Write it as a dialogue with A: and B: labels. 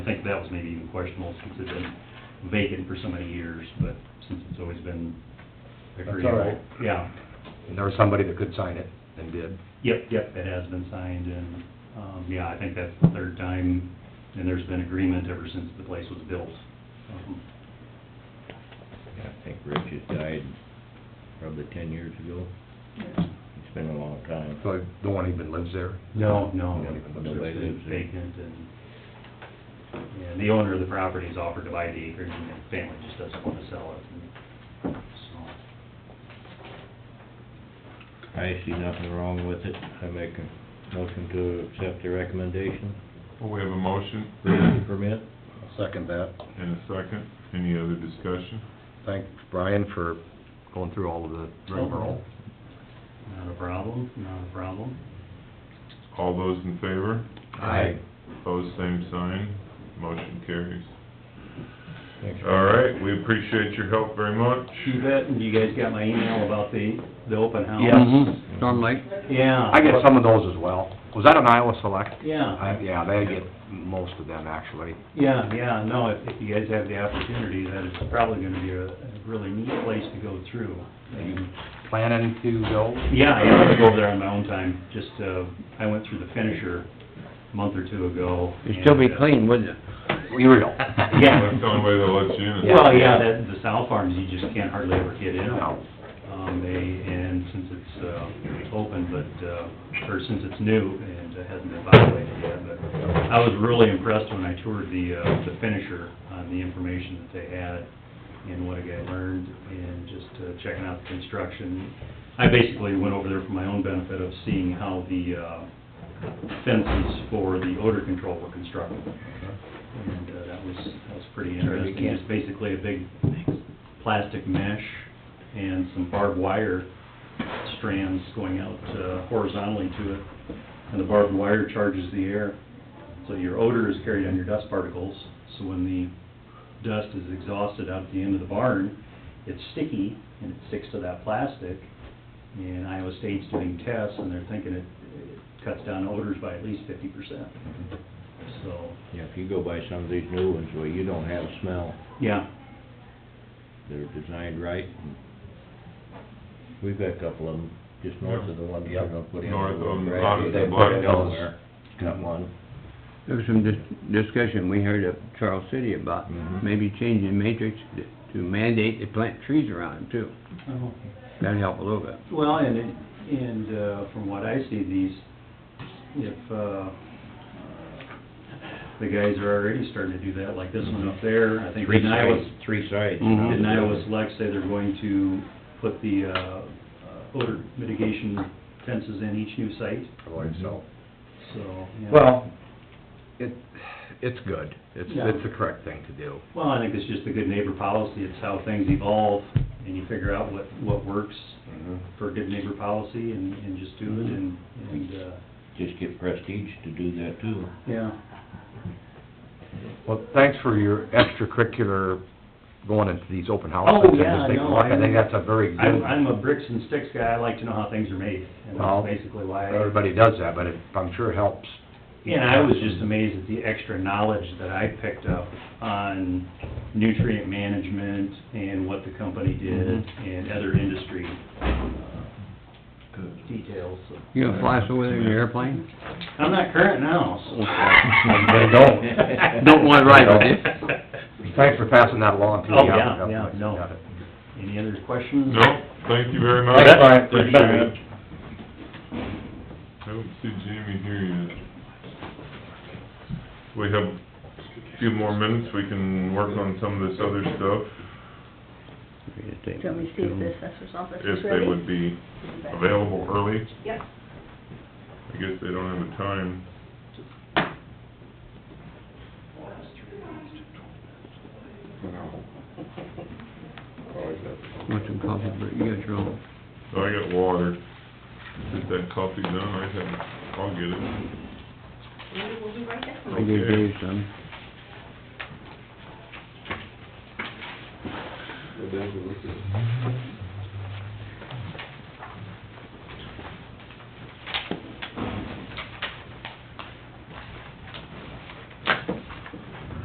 A: I think that was maybe even questionable since it's been vacant for so many years, but since it's always been
B: That's all right.
A: Yeah,
B: And there was somebody that could sign it and did.
A: yep, yep, it has been signed and, um, yeah, I think that's the third time and there's been agreement ever since the place was built. Um,
C: I think Rich has died probably ten years ago. It's been a long time.
B: So the one even lives there.
A: No, no,
B: No,
A: it's
C: nobody
A: been
C: lives there.
A: vacant and, and the owner of the property has offered to buy the acreage and the family just doesn't want to sell it. and so,
C: I see nothing wrong with it. I make a motion to accept the recommendation,
D: Well, we have a motion
C: building permit.
B: I'll Second that.
D: and a second. Any other discussion?
B: Thanks Brian for going through all of the rigmarole.
A: Not a problem, not a problem.
D: All those in favor?
B: Aye.
D: Opposed, same sign. Motion carries.
C: Thanks.
D: All right, we appreciate your help very much.
A: You bet, and you guys got my email about the, the open house?
E: Storm Lake?
A: Yeah.
B: Mm-hmm. I get some of those as well. Was that an Iowa Select?
A: Yeah,
B: I, yeah, they get most of them actually.
A: yeah, yeah, no, if, if you guys have the opportunity, that is probably gonna be a, a really neat place to go through. And,
B: Planning to go?
A: Yeah, I am gonna go over there on my own time, just, uh, I went through the finisher a month or two ago.
E: It'd still be
A: and, uh,
E: clean, wouldn't it?
B: Real.
A: Yeah.
D: That's the only way they'll let you in.
A: Well, yeah, that, the sow farms, you just can't hardly ever get in.
B: No.
A: Um, they, and since it's, uh, open, but, uh, or since it's new and it hasn't been violated yet, but I was really impressed when I toured the, uh, the finisher on the information that they had and what a guy learned and just uh, checking out the construction. I basically went over there for my own benefit of seeing how the, uh, fences for the odor control were constructed. And, uh, that was, that was pretty interesting. It's basically a big plastic mesh and some barbed wire strands going out uh, horizontally to it. And the barbed wire charges the air. So your odor is carried on your dust particles. So when the dust is exhausted out at the end of the barn, it's sticky and it sticks to that plastic. And Iowa State's doing tests and they're thinking it it cuts down odors by at least fifty percent. So,
C: Yeah, if you go by some of these new ones where you don't have smell,
A: yeah,
C: they're designed right. We've got a couple of them, just north of the ones they're gonna put in.
D: North of them,
C: Right.
D: out of the
C: They put
D: Black
C: it
D: Hills.
C: nowhere. Got one.
E: There was some dis- discussion we heard of Charles City about
C: Mhm.
E: maybe changing matrix to- to mandate they plant trees around them too.
A: Oh,
E: That'd help a little bit.
A: Well, and, it- and uh, from what I see, these, if, uh, the guys are already starting to do that, like this one up there, I think
C: Three
A: in Iowa,
C: sides, three sides.
E: Mhm.
B: Mm-hmm.
A: didn't Iowa Select say they're going to put the, uh, uh, odor mitigation fences in each new site,
B: I believe so.
A: so, yeah.
B: Well, it, it's good. It's,
A: Yeah.
B: it's the correct thing to do.
A: Well, I think it's just the good neighbor policy, it's how things evolve, and you figure out what, what works
B: Mm-hmm.
A: for good neighbor policy, and, and just do it, and, and, uh,
C: Just get Prestige to do that too.
A: yeah.
B: Well, thanks for your extracurricular going into these open houses.
A: Oh,
B: and
A: yeah,
B: just taking a
A: no,
B: look. I
A: I'm-
B: think that's a very
A: I'm,
B: good,
A: I'm a bricks and sticks guy, I like to know how things are made, and
B: Well,
A: that's basically why I...
B: everybody does that, but it, I'm sure it helps.
A: And I was just amazed at the extra knowledge that I picked up on nutrient management and what the company did
F: Mm-hmm.
A: and other industry uh,
D: Good.
A: details.
E: You gonna fly us over there in your airplane?
A: I'm not current now,
B: They
A: so...
B: don't.
E: Don't wanna ride with you.
B: Thanks for passing that along to me.
A: Oh, yeah, yeah, no.
B: Got it.
A: Any other questions?
D: No, thank you very much.
B: Thanks, Brian.
D: Appreciate it. I don't see Jamie here yet. We have a few more minutes, we can work on some of this other stuff,
F: Do you want me to see if the assessor's office
D: if
F: is
D: they
F: ready?
D: would be available early.
F: Yep.
D: I guess they don't have a time.
E: Want some coffee, but you got your own.
D: Oh, I got water. Get that coffee done, I have, I'll get it.
F: We'll be right there.
E: I gave
D: Okay.
E: Dave some.